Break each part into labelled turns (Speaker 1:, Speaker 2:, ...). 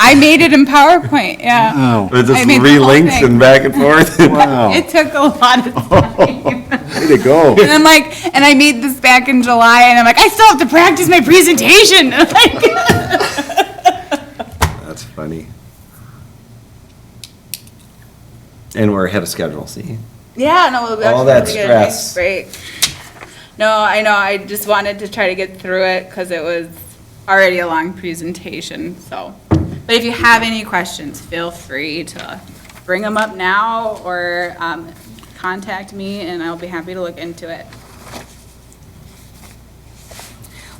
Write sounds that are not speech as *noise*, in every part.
Speaker 1: I made it in PowerPoint, yeah.
Speaker 2: Oh,
Speaker 3: It
Speaker 1: I
Speaker 3: just
Speaker 1: mean, the whole
Speaker 3: relinks
Speaker 1: thing.
Speaker 3: and back
Speaker 1: *laughs*
Speaker 3: and forth.
Speaker 2: wow,
Speaker 1: It took a lot of
Speaker 3: Oh.
Speaker 1: time.
Speaker 3: *laughs*
Speaker 2: way to go.
Speaker 1: And I'm like, and I made this back in July, and I'm like, I still have to practice my presentation. *laughs* Like,
Speaker 3: That's funny. And we're ahead of schedule, see?
Speaker 1: Yeah, no, we'll actually
Speaker 3: All that
Speaker 1: have to get a nice
Speaker 3: stress.
Speaker 1: break. No, I know, I just wanted to try to get through it, because it was already a long presentation, so. But if you have any questions, feel free to bring them up now, or um, contact me, and I'll be happy to look into it.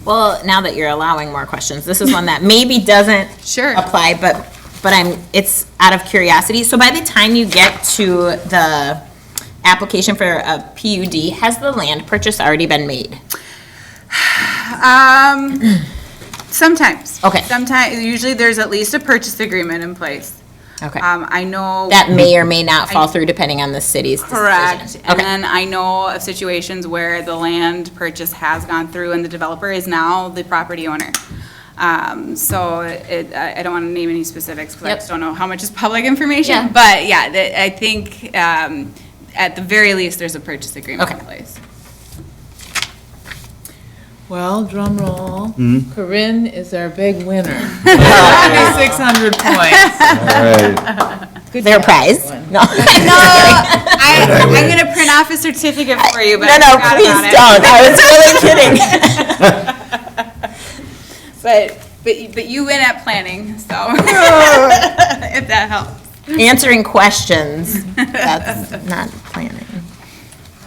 Speaker 4: Well, now that you're allowing more questions, this is one that maybe doesn't
Speaker 1: Sure.
Speaker 4: apply, but, but I'm, it's out of curiosity. So by the time you get to the application for a PUD, has the land purchase already been made?
Speaker 1: Um, sometimes.
Speaker 4: Okay.
Speaker 1: Sometimes, usually there's at least a purchase agreement in place.
Speaker 4: Okay.
Speaker 1: Um, I know.
Speaker 4: That may or may not fall through depending on the city's decision.
Speaker 1: Correct. And
Speaker 4: Okay,
Speaker 1: then I know of situations where the land purchase has gone through and the developer is now the property owner. Um, so it, I I don't want to name any specifics because I
Speaker 4: Yep.
Speaker 1: just don't know how much is public information.
Speaker 4: Yeah.
Speaker 1: But yeah, the- I think, um, at the very least, there's a purchase agreement in
Speaker 4: Okay.
Speaker 1: place.
Speaker 5: Well, drum roll. Corinne is our big winner. Six hundred points.
Speaker 3: All right.
Speaker 4: *laughs*
Speaker 1: *laughs*
Speaker 4: their prize. No,
Speaker 1: I, I'm gonna print off a certificate for you, but
Speaker 4: no,
Speaker 1: I
Speaker 4: Oh,
Speaker 1: forgot
Speaker 4: no, please
Speaker 1: about it.
Speaker 4: don't. I was really kidding.
Speaker 1: But, but, but you win at planning, so, *laughs* if that helps.
Speaker 4: Answering questions, that's not planning.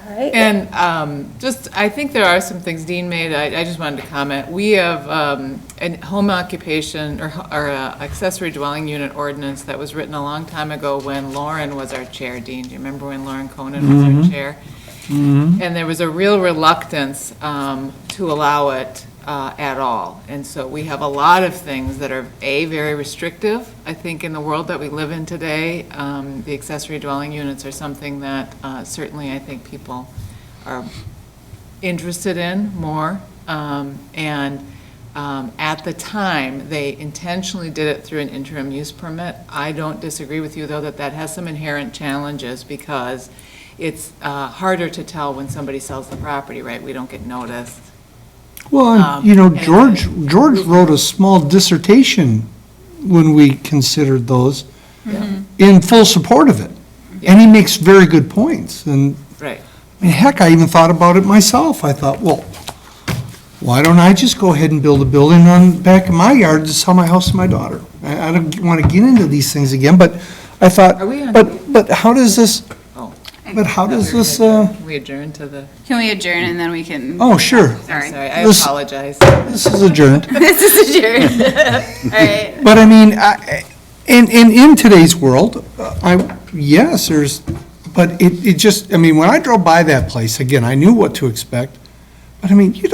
Speaker 5: And um, just, I think there are some things Dean made, I I just wanted to comment. We have um, a home occupation or ho- or a accessory dwelling unit ordinance that was written a long time ago when Lauren was our chair, Dean. Do you remember when Lauren Conan was our chair? And there was a real reluctance um, to allow it uh, at all. And so we have a lot of things that are, A, very restrictive. I think in the world that we live in today, um, the accessory dwelling units are something that uh, certainly I think people are interested in more. Um, And um, at the time, they intentionally did it through an interim use permit. I don't disagree with you, though, that that has some inherent challenges because it's uh, harder to tell when somebody sells the property, right? We don't get noticed.
Speaker 6: Well, and, you know,
Speaker 5: Um, and-
Speaker 6: George, George wrote a small dissertation when we considered those
Speaker 5: Mm-hmm.
Speaker 6: in full support of it. And he makes very good points. And
Speaker 5: Right.
Speaker 6: I mean, heck, I even thought about it myself. I thought, well, why don't I just go ahead and build a building on the back of my yard to sell my house to my daughter? I, I don't want to get into these things again, but I thought,
Speaker 5: Are we on-
Speaker 6: but, but how does this,
Speaker 5: Oh.
Speaker 6: but how does this, uh,
Speaker 5: Can we adjourn to the,
Speaker 1: Can we adjourn and then we can,
Speaker 6: oh, sure,
Speaker 1: sorry.
Speaker 5: sorry, I
Speaker 6: This-
Speaker 5: apologize.
Speaker 6: this is adjourned.
Speaker 1: *laughs* This is
Speaker 6: *laughs*
Speaker 1: adjourned. All right.
Speaker 6: But I mean, I- I- in, in, in today's world, uh, I, yes, there's, but it, it just, I mean, when I drove by that place, again, I knew what to expect. But I mean, you